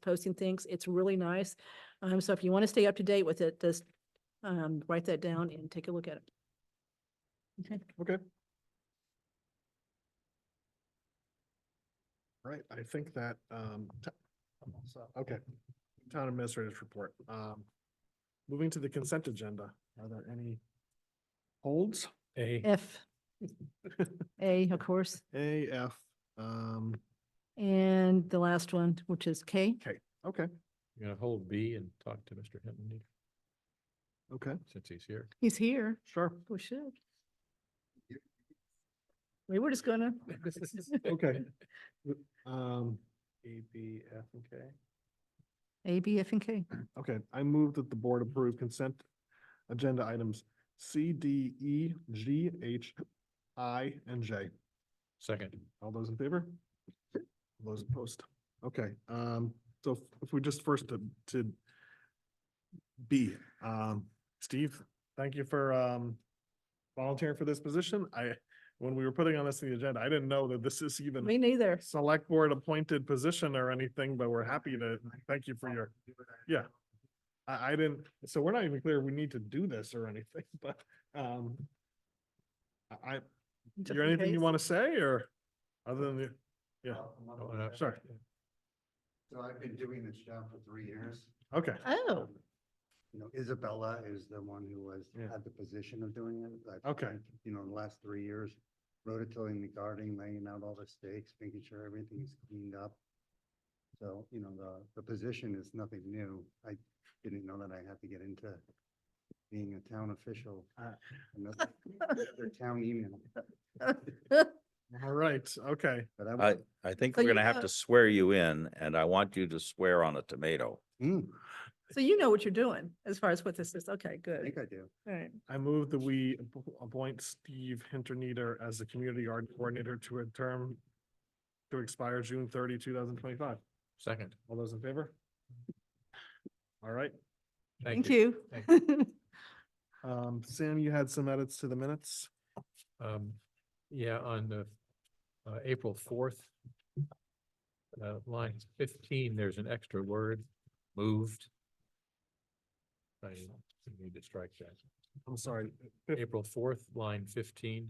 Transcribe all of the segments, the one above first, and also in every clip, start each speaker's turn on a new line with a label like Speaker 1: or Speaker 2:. Speaker 1: posting things. It's really nice. Um, so if you want to stay up to date with it, just um, write that down and take a look at it. Okay.
Speaker 2: Okay. Right, I think that, um, t- so, okay, town administrator's report. Um, moving to the consent agenda, are there any holds?
Speaker 3: A.
Speaker 1: F, A, of course,
Speaker 2: A, F, um,
Speaker 1: and the last one, which is K.
Speaker 2: okay,
Speaker 3: You're gonna hold B and talk to Mr. Hinton
Speaker 2: okay,
Speaker 3: since he's here.
Speaker 1: He's here.
Speaker 2: sure,
Speaker 1: We should. We were just gonna.
Speaker 2: okay. Um, A, B, F, and K.
Speaker 1: A, B, F, and K.
Speaker 2: Okay, I move that the board approve consent agenda items C, D, E, G, H, I, and J.
Speaker 3: Second,
Speaker 2: All those in favor? All Those opposed? Okay, um, so if- if we just first to, to B, um, Steve, thank you for, um, volunteering for this position. I, when we were putting on this in the agenda, I didn't know that this is even
Speaker 1: Me neither.
Speaker 2: select board appointed position or anything, but we're happy to, thank you for your, yeah. I, I didn't, so we're not even clear we need to do this or anything, but, um, I,
Speaker 1: just
Speaker 2: you
Speaker 1: in
Speaker 2: anything you
Speaker 1: case.
Speaker 2: want to say or other than the, yeah, uh,
Speaker 3: Oh, and I-
Speaker 2: sorry,
Speaker 4: So I've been doing this job for three years.
Speaker 2: okay,
Speaker 1: Oh,
Speaker 4: You know, Isabella is the one who was,
Speaker 2: Yeah.
Speaker 4: had the position of doing it. I've
Speaker 2: Okay.
Speaker 4: spent, You know, the last three years, rototilling the garden, laying out all the stakes, making sure everything is cleaned up. So, you know, the, the position is nothing new. I didn't know that I had to get into being a town official.
Speaker 2: Ah.
Speaker 4: Another another town email.
Speaker 2: all right, okay.
Speaker 4: But I,
Speaker 5: I,
Speaker 4: was-
Speaker 5: I think
Speaker 1: So
Speaker 5: we're
Speaker 1: you
Speaker 5: gonna have
Speaker 1: know-
Speaker 5: to swear you in, and I want you to swear on a tomato.
Speaker 4: Hmm,
Speaker 1: so you know what you're doing as far as what this is. Okay,
Speaker 4: I
Speaker 1: good.
Speaker 4: think I do.
Speaker 1: All right.
Speaker 2: I move that we ap- appoint Steve Hinterneeder as the community art coordinator to a term to expire June 30, 2025.
Speaker 3: second.
Speaker 2: All those in favor? All right,
Speaker 1: Thank you.
Speaker 2: um, Sam, you had some edits to the minutes?
Speaker 3: Um, yeah, on the, uh, April fourth, uh, line fifteen, there's an extra word, moved. I need to strike that.
Speaker 2: I'm sorry, fif-
Speaker 3: April fourth, line fifteen.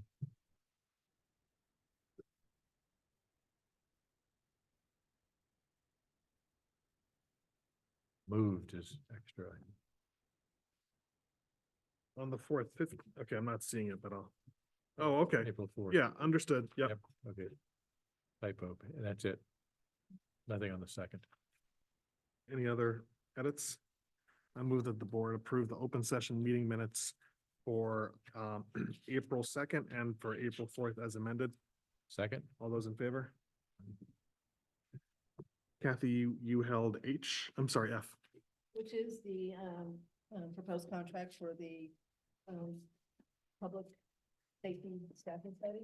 Speaker 3: Moved is extra.
Speaker 2: on the fourth, fifth, okay, I'm not seeing it, but I'll, oh, okay,
Speaker 3: April fourth.
Speaker 2: yeah, understood, yeah.
Speaker 3: Yep, okay. Typo, and that's it. Nothing on the second.
Speaker 2: Any other edits? I move that the board approve the open session meeting minutes for, um, April second and for April fourth as amended.
Speaker 3: Second,
Speaker 2: All those in favor? Kathy, you, you held H, I'm sorry, F.
Speaker 1: Which is the um, um, proposed contract for the um, public safety staffing study.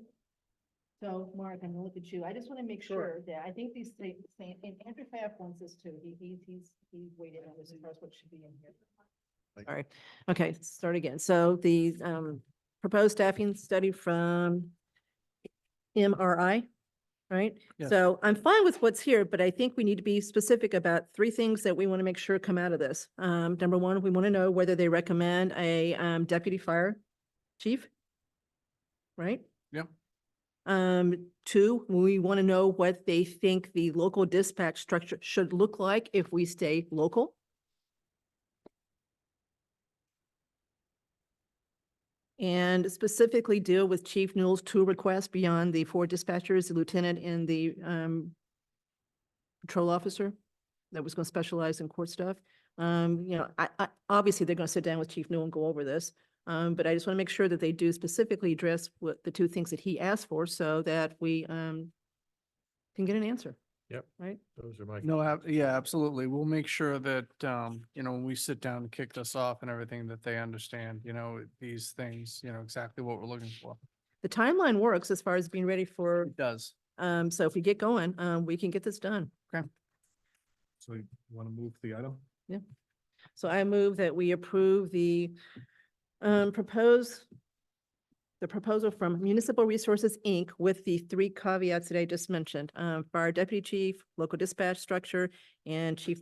Speaker 1: So Mark, I'm gonna look at you. I just want to make
Speaker 2: Sure.
Speaker 1: sure that, I think these things, and Andrew Pfaff wants this too. He, he's, he's, he waited on this as far as what should be in here.
Speaker 2: Like-
Speaker 1: All right, okay, start again. So the um, proposed staffing study from MRI, right?
Speaker 2: Yes.
Speaker 1: So I'm fine with what's here, but I think we need to be specific about three things that we want to make sure come out of this. Um, number one, we want to know whether they recommend a um, deputy fire chief, right?
Speaker 2: Yep.
Speaker 1: Um, two, we want to know what they think the local dispatch structure should look like if we stay local. And specifically deal with Chief Newell's two requests beyond the four dispatchers, the lieutenant and the um patrol officer that was going to specialize in court stuff. Um, you know, I, I, obviously they're going to sit down with Chief Newell and go over this. Um, but I just want to make sure that they do specifically address what the two things that he asked for so that we um can get an answer.
Speaker 3: those are my.
Speaker 6: No, ab- yeah, absolutely. We'll make sure that, um, you know, when we sit down and kick this off and everything, that they understand, you know, these things, you know, exactly what we're looking for.
Speaker 1: The timeline works as far as being ready for,
Speaker 6: It does.
Speaker 1: um, so if we get going, um, we can get this done.
Speaker 2: So you want to move the item?
Speaker 1: So I move that we approve the um, proposed, the proposal from Municipal Resources, Inc. with the three caveats that I just mentioned, um, fire deputy chief, local dispatch structure, and chief